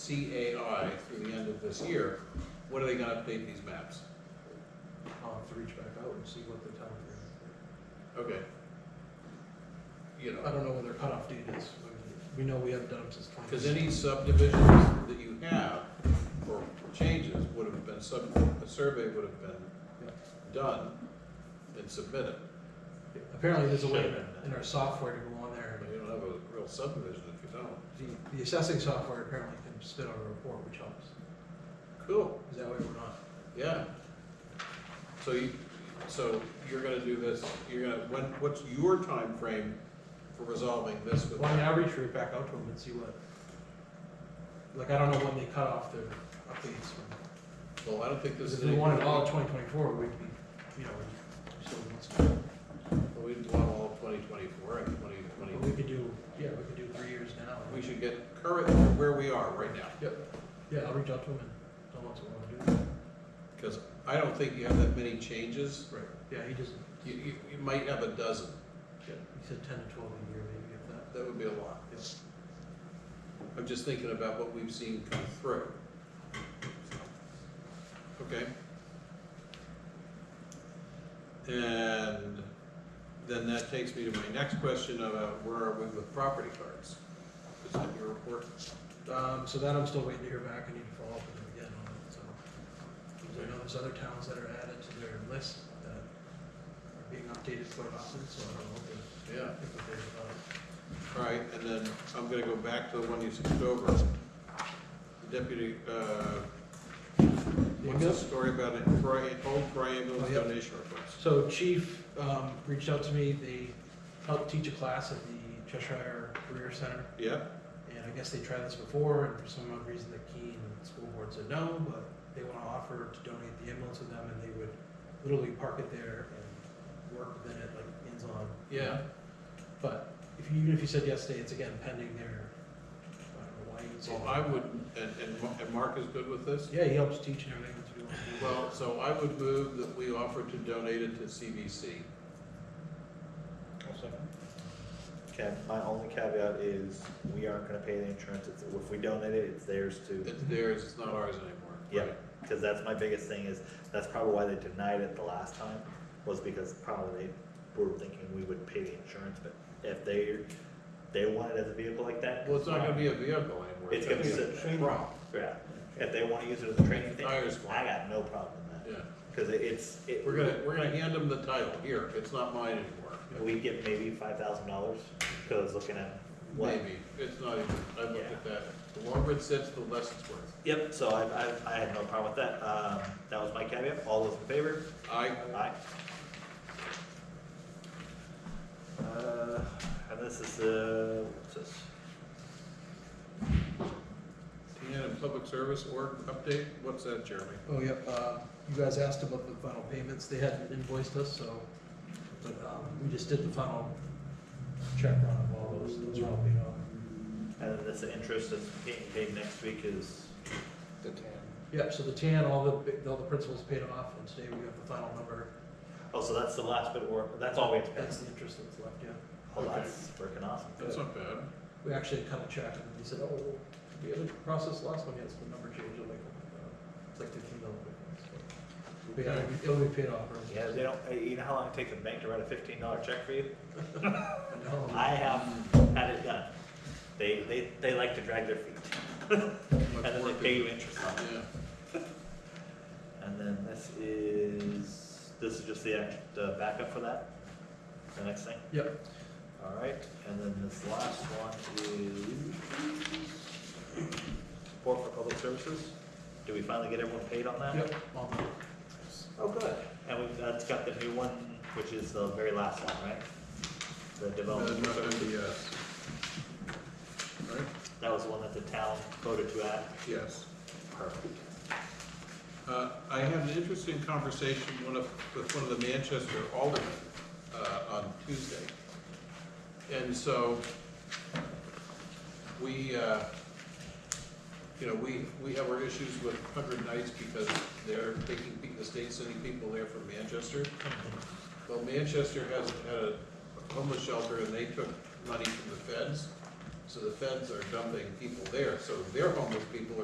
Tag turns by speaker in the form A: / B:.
A: CAI through the end of this year, what are they gonna update these maps?
B: I'll have to reach back out and see what the time frame
A: Okay. You
B: is. I
A: know,
B: don't know when their cutoff date is. We know we haven't done them since twenty.
A: because any subdivisions that you have or changes would have been sub, a survey would have been done and submitted.
B: Apparently, there's a way
A: Should've been.
B: in our software to go on there
A: You don't have a real subdivision if you don't.
B: and the, the assessing software apparently can spit out a report, which helps.
A: Cool,
B: Is that way we're not?
A: yeah. So you, so you're gonna do this, you're gonna, when, what's your time frame for resolving this with?
B: Well, I mean, I'll reach right back out to them and see what, like, I don't know when they cut off their updates from.
A: Well, I don't think this
B: Because
A: is.
B: if we
A: anything-
B: wanted all of twenty twenty-four, we'd be, you know, we'd still want some.
A: Well, We want all twenty twenty-four and twenty
B: But
A: twenty,
B: we could do, yeah, we could do three years now.
A: we should get current where we are right now.
B: Yeah, I'll reach out to them and tell them what's going on.
A: Because I don't think you have that many changes.
B: Right. Yeah, he doesn't,
A: You, you, you might have a dozen.
B: yeah, he said ten to twelve a year, maybe if that.
A: That would be a lot.
B: Yes.
A: I'm just thinking about what we've seen come through. Okay. And then that takes me to my next question about where are we with property cards? Is that your report?
B: Um, so that I'm still waiting to hear back, I need to follow up with them again on it, so. Because I know there's other towns that are added to their list that are being updated quite often, so I don't know if
A: Yeah.
B: they think they're about
A: All right, and then I'm gonna go back to the one you skipped over. Deputy, uh, what's the
B: Yes.
A: story about it, Bri- old Brian Mills
B: Oh, yep.
A: donation request?
B: So Chief um, reached out to me, they helped teach a class at the Cheshire Career Center,
A: Yeah,
B: and I guess they tried this before, and for some odd reason, the Keene School Board said no, but they want to offer to donate the ambulance to them, and they would literally park it there and work within it, like, ends on.
A: yeah,
B: But if you, even if you said yes today, it's again pending their, I don't know why you would say.
A: so I would, and, and Ma- and Mark is good with this?
B: Yeah, he helps teach and everything to do.
A: Well, so I would move that we offer to donate it to CVC.
C: Okay, my only caveat is we aren't gonna pay the insurance. It's, if we donate it, it's theirs too.
A: It's theirs, it's not ours anymore.
C: Yeah.
A: Right.
C: Cause that's my biggest thing is, that's probably why they denied it the last time, was because probably they were thinking we would pay the insurance, but if they, they want it as a vehicle like that.
A: Well, it's not gonna be a vehicle anymore.
C: It's gonna be
A: a
C: a-
A: prop.
C: Yeah, if they wanna use it as a training thing,
A: Tires one.
C: I got no problem with that,
A: Yeah,
C: cause it- it's, it.
A: we're gonna, we're gonna hand them the title, here, it's not mine anymore.
C: We get maybe five thousand dollars, cause looking at what
A: Maybe, it's not even, I looked
C: Yeah.
A: at that, the longer it sits, the less it's worth.
C: Yep, so I, I, I had no problem with that. Um, that was my caveat. All those in favor?
A: I,
C: Aye. Uh, and this is, uh, what's this?
A: TN and Public Service org update, what's that, Jeremy?
B: Oh, yep, uh, you guys asked about the final payments, they hadn't invoiced us, so, but, um, we just did the final check run of all those, those are all paid off.
C: And then this interest that's getting paid next week is,
A: The TN.
B: Yep, so the tan, all the, bi- all the principal's paid off, and today we have the final number,
C: oh, so that's the last bit, or that's all we have to pay.
B: that's the interest that's left, yeah.
C: Oh,
A: Okay.
C: that's working awesome.
A: That's not bad.
B: We actually cut a check, and they said, oh, we had a process last one, yes, the number changed, I'm like, "Oh, it's like fifteen dollars. But yeah, it'll be- it'll be paid off, right?
C: Yeah, they don't, uh, you know how long it takes a bank to write a fifteen dollar check for you?
B: No.
C: I have had it done. They, they, they like to drag their feet and then they pay you interest on it.
A: Yeah,
C: And then this is, this is just the act, the backup for that, the next thing.
B: Yep,
C: All right, and then this last one is support for public services. Do we finally get everyone paid on that?
B: yep, all done.
C: Oh, good. And we've, that's got the new one, which is the very last one, right? The development,
A: Another MDS. Right,
C: that was the one that the town voted to add.
A: yes.
C: Perfect.
A: Uh, I had an interesting conversation one of, with one of the Manchester aldermen, uh, on Tuesday. And so, we, uh, you know, we, we have our issues with Hundred Nights because they're taking, pe- the state's sending people there from Manchester. Well, Manchester has had a homeless shelter and they took money from the feds, so the feds are dumping people there, so their homeless people are.